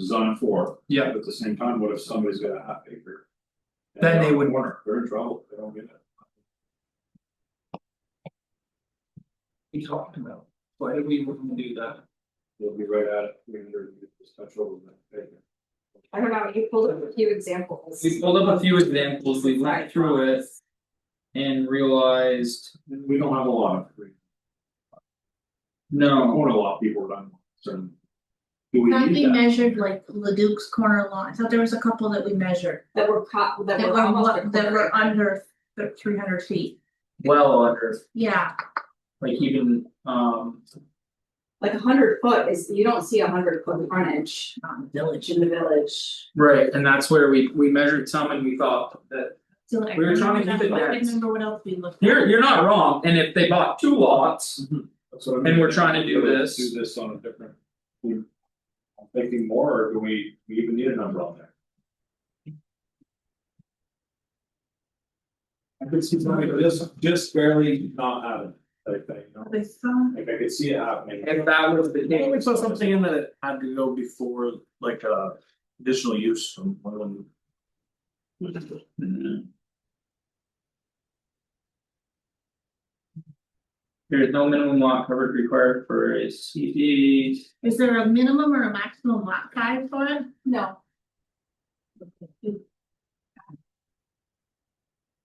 zone four, yeah, but at the same time, what if somebody's got a half acre? And Then they they're would- corner, They're in trouble, they don't get it. we talked about, why did we want to do that? They'll be right at it, we're gonna just touch over that acre. I don't know, you pulled up a few examples. We pulled up a few examples, we went through it and realized, And we don't have a lot of free, no, corner lot people are not certain. Do we Thought we need that? measured like Leduc's corner lot, I thought there was a couple that we measured, That were caught, that that were were almost lo- a that quarter. were under three hundred feet, well under, yeah. like even um Like a hundred foot is, you don't see a hundred foot frontage Not in the village. in the village. Right, and that's where we we measured some and we thought that So like, I We were trying to remember keep it that- I dense. can't remember what else we looked at. you're you're not wrong, and if they bought two lots. That's what I And mean. we're trying to do we this. Do this on a different. we- I'm thinking more, or do we, we even need a number on there? I could see somebody just, just barely not having, like, you know, They saw, like I could see it happening. If that was the I think case, Mm-hmm. we saw something in that it had to go before like uh additional use from one of them. there is no minimum lot coverage required for a CD. is there a minimum or a maximum lot size for it? No,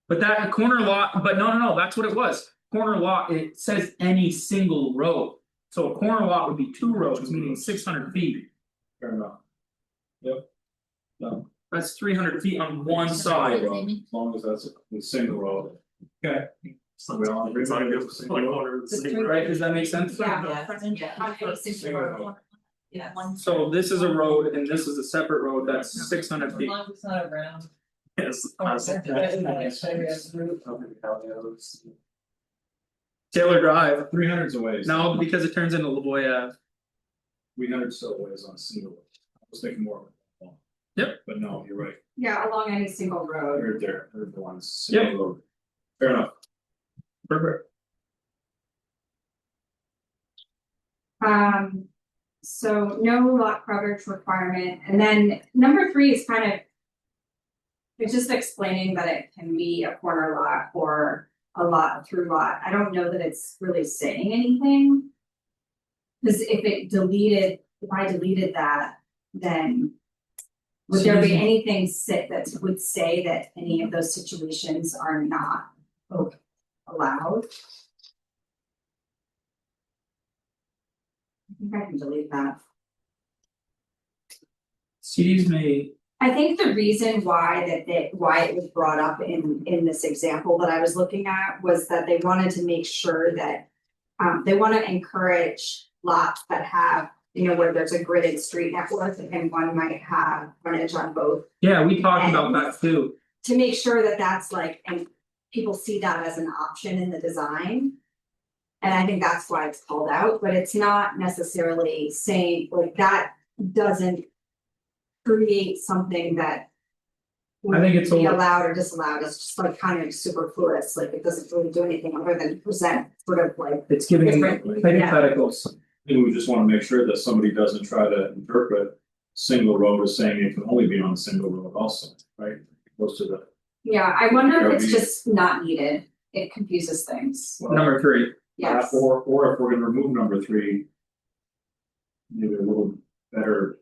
But that corner lot, but no, no, no, that's what it was, corner lot, it says any single road. So a corner lot would be two roads, meaning six hundred feet, Fair enough. Yep. No, that's three hundred feet on one side. well, as long as that's a single road. Okay. So we all agree. It's not a good- it's not a Just good- three- Right, does that make sense? Yeah. Front- yeah. front- Okay, six front- row. yes. One- So this is a road and this is a separate road that's six hundred feet. long as it's not around. Yes. Oh, that's- that's- that's nice. I guess. Taylor Drive, Three hundreds away. is- no, because it turns into Lavoya. We hundred so ways on a single. road. I was thinking more. of a long. Yep. But no, you're right, yeah, along any single road. they're there, they're the ones. Yep. single road. Fair enough. Perfect. Um, so no lot coverage requirement, and then number three is kind of. It's just explaining that it can be a corner lot or a lot through lot, I don't know that it's really saying anything. Cause if it deleted, if I deleted that, then. Would there be anything sit that would say that any of those situations are not o- allowed? I think I can delete that. CDs may, I think the reason why that they, why it was brought up in in this example that I was looking at was that they wanted to make sure that. Um, they wanna encourage lots that have, you know, where there's a gridded street network and one might have frontage on both. yeah, we talked about that too, To make sure that that's like, and people see that as an option in the design. And I think that's why it's called out, but it's not necessarily saying like that doesn't. Create something that. I think it's would Be all- allowed or disallowed, it's just like kind of superfluous, like it doesn't really do anything other than present sort of like. it's giving Different, yeah. hypotheticals. I think we just wanna make sure that somebody doesn't try to interpret single road as saying it can only be on a single road also, right? Most of the. Yeah, I wonder Yeah, if it's we- just not needed, it confuses things, Number three, yes. Or or if we're gonna remove number three. Maybe a little better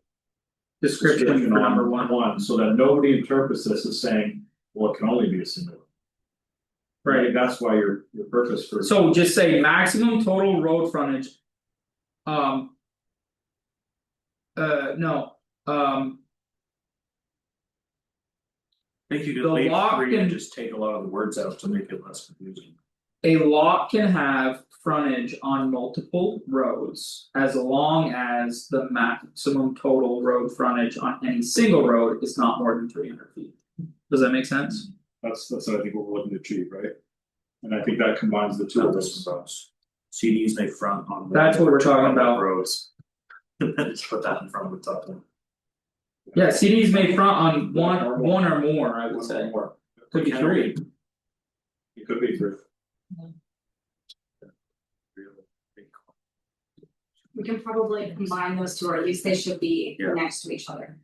description for description on number one, One, so that nobody interprets this as saying, well, it can only be a single. road. right? That's why your your purpose for. So just say maximum total road frontage. Um. Uh, no, um, I Think you The could leave lock three and- and just take a lot of the words out to make it less confusing. A lot can have frontage on multiple roads as long as the maximum total road frontage on any single road is not more than three hundred feet. Does that make sense? That's that's what I think we're looking to achieve, right? And I think that combines the two of those. CDs they front on. the- That's what we're talking about. Roads. And then just put that in front of the top one. Yeah, CDs may front on one, one or more, I would say, More. could be three. It could be three. we can probably combine those two, or at least they should be Yeah. next to each other.